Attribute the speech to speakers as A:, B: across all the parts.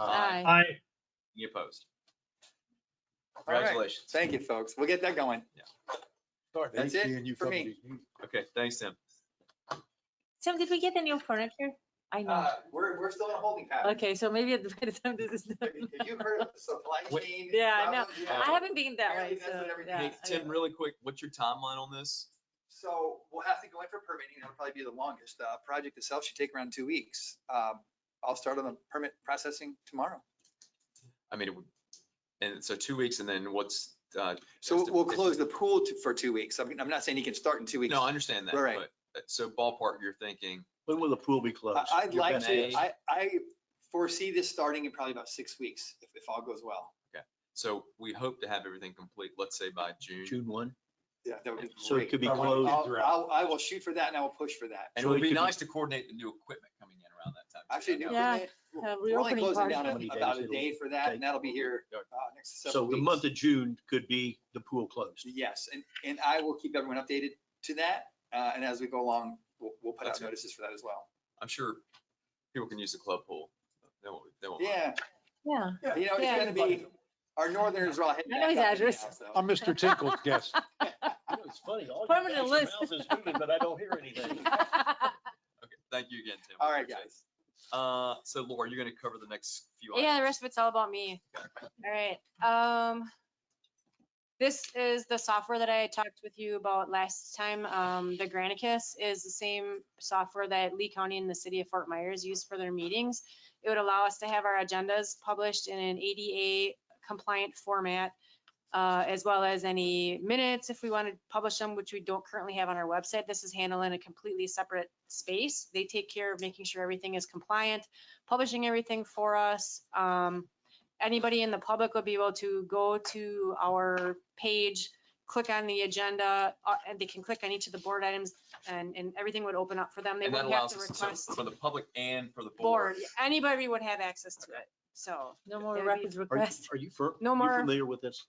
A: Aye.
B: Aye.
C: Any opposed?
D: All right.
C: Congratulations.
D: Thank you, folks. We'll get that going. That's it for me.
C: Okay, thanks, Tim.
A: Tim, did we get the new furniture? I know.
E: Uh, We're, we're still in a holding pattern.
A: Okay, so maybe at the- by the time this is done.
E: Have you- have you heard of the supply
C: Wait.
E: chain?
A: Yeah, I know.
E: problems? Yeah.
A: I haven't been that way,
E: Apparently that's
A: so,
E: what everything
A: yeah.
C: Hey,
A: I
C: Tim,
A: know.
C: really quick, what's your timeline on this?
E: So we'll have to go in for permitting. That'll probably be the longest. Uh, project itself should take around two weeks. Um, I'll start on the permit processing tomorrow.
C: I mean, it would- and so two weeks and then what's, uh?
E: So
C: just a-
E: we'll close the pool to- for two weeks. I mean, I'm not saying you can start in two weeks.
C: No, I understand that,
E: Right.
C: but, uh, so ballpark, you're thinking,
B: When will the pool be closed?
E: I- I'd
B: Your
E: like
B: best
E: to,
B: guess.
E: I, I foresee this starting in probably about six weeks, if, if all goes well.
C: so we hope to have everything complete, let's say by June.
B: June one.
E: Yeah, that would be
B: So it
E: great.
B: could be
E: I wanna-
B: closed
E: I'll-
B: throughout.
E: I'll- I will shoot for that and I will push for that.
C: And it
B: So
C: would
B: it
C: be
B: could be-
C: nice to coordinate the new equipment coming in around that time. too.
E: Actually, new
A: Yeah,
E: equipment,
A: uh,
E: we're only
A: reopening
E: closing
A: party.
E: down
B: How many
E: in about
B: days
E: a
B: it'll
E: day for that,
B: take?
E: and that'll be here uh, next
B: So
E: several
B: the
E: weeks.
B: month of June could be the pool closed.
E: Yes, and, and I will keep everyone updated to that, uh, and as we go along, we'll, we'll put
C: That's
E: out
C: good.
E: notices for that as well.
C: I'm sure people can use the club pool. They won't, they won't. mind.
E: Yeah,
A: Yeah,
E: you know,
A: Yeah.
E: it's gonna be, our northerners are all heading
A: I know
E: back
A: his
E: up again
A: address.
E: now, so.
F: I'm Mr. Tinkle's guest.
B: It's funny, all
A: Permanent list.
B: but I don't hear anything.
C: Okay, thank you again, Tim. We
E: All right,
C: appreciate it.
E: guys.
C: Uh, so Laura, you're gonna cover the next few items.
G: Yeah, the rest of it's all about me. All right, um, this is the software that I talked with you about last time. Um, the Granicus is the same software that Lee County and the city of Fort Myers use for their meetings. It would allow us to have our agendas published in an ADA compliant format, uh, as well as any minutes if we want to publish them, which we don't currently have on our website. This is handled in a completely separate space. They take care of making sure everything is compliant publishing everything for us. Um, anybody in the public would be able to go to our page, click on the agenda, uh, and they can click on each of the board items and, and everything would open up for them. They
C: And that
G: wouldn't have
C: allows
G: to
C: us to- so
G: request
C: for the public and for the board.
G: board. Anybody would have access to it. So
A: no more
G: It'd be-
A: records
B: Are you,
A: request.
B: are you fir-
G: No
B: you
G: more.
B: familiar with this?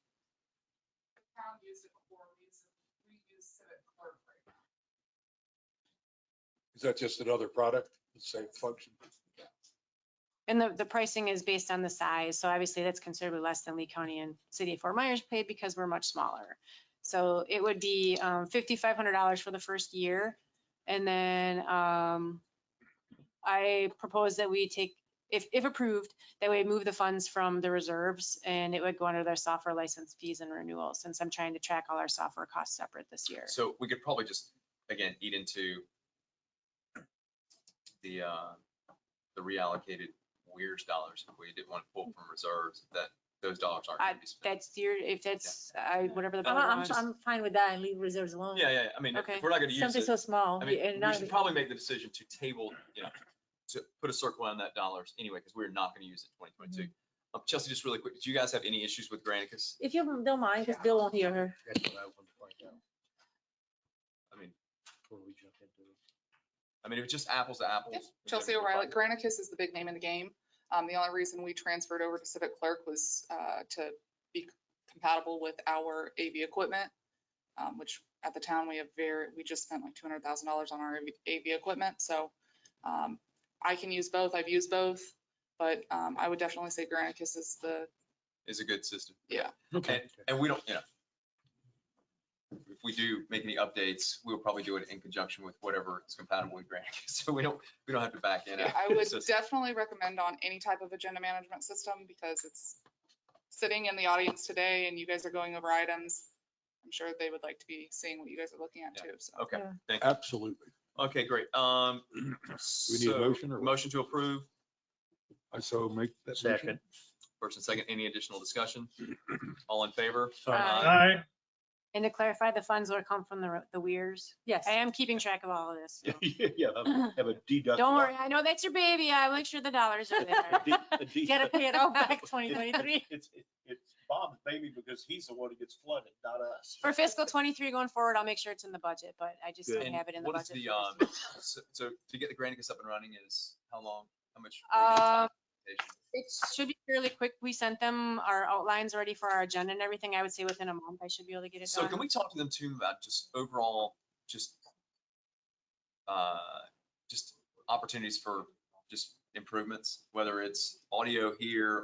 H: town used it before, we use it, we use Civic Clerk right now.
F: Is that just another product, the same function?
G: And the, the pricing is based on the size, so obviously that's considerably less than Lee County and City of Fort Myers paid because we're much smaller. So it would be um, $5,500 for the first year. And then um, I propose that we take, if, if approved, that we move the funds from the reserves and it would go under their software license fees and renewal, since I'm trying to track all our software costs separate this year.
C: So we could probably just, again, eat into the, uh, the reallocated weirs dollars if we didn't want to pull from reserves, that those dollars aren't gonna be spent.
G: That's your, if that's, I, whatever the.
A: I'm,
G: board
A: Uh, I'm,
G: wants.
A: I'm fine with that and leave reserves alone.
C: Yeah, yeah, I mean, if-
G: Okay.
C: if we're not gonna use
A: Something
C: it,
A: so small. yeah,
C: I
A: and
C: mean, we
A: not-
C: should probably make the decision to table, you know, to put a circle on that dollars anyway, because we're not gonna use it twenty twenty-two.
G: Mm-hmm.
C: Um, Chelsea, just really quick, do you guys have any issues with Granicus?
A: If you don't mind, because Bill won't hear her.
B: That's what I want to find out
C: I mean,
B: before we jump into it.
C: I mean, it was just apples to apples.
H: Yep,
C: with
H: Chelsea
C: everything.
H: O'Reilly, Granicus is the big name in the game. Um, the only reason we transferred over to Civic Clerk was, uh, to be compatible with our AV equipment, um, which at the town, we have very, we just spent like two hundred thousand dollars on our AV AV equipment, so, um, I can use both, I've used both, but, um, I would definitely say Granicus is the,
C: Is a good system.
H: Yeah.
C: Okay. And we don't, you know, if we do make any updates, we'll probably do it in conjunction with whatever is compatible with Granicus. So we don't, we don't have to back in.
H: Yeah, I would
C: So-
H: definitely recommend on any type of agenda management system because it's sitting in the audience today and you guys are going over items. I'm sure they would like to be seeing what you guys are looking at
C: Yeah.
H: too, so.
C: Okay,
A: Yeah.
C: thank you.
F: Absolutely.
C: Okay, great. Um,
F: We need a
C: so
F: motion or? what?
C: motion to approve,
F: I so make that. motion.
B: Second.
C: first and second, any additional discussion? All in favor?
G: Uh,
A: Aye.
B: Aye.
G: And to clarify, the funds would come from the, re- the weirs.
A: Yes.
G: I am keeping track of all of this. so.
B: Yeah, have a deductible.
G: Don't worry, I know that's your baby. I'll make sure the dollars are
B: A de-
G: there.
B: a de-
A: Gotta pay it all back 2023.
B: It's, it's- it's Bob's baby because he's the one who gets flooded, not us.
G: For fiscal twenty-three going forward, I'll make sure it's in the budget, but I just don't
C: And
G: have it in the
C: what is
G: budget.
C: the,
G: for
C: um,
G: this
C: so, so to get the Granicus up and running is how long, how much?
G: year. Um,
C: time?
G: It should be fairly quick. We sent them our outlines already for our agenda and everything. I would say within a month, I should be able to get it
C: So
G: done.
C: can we talk to them too about just overall, just, uh, just opportunities for just improvements, whether it's audio here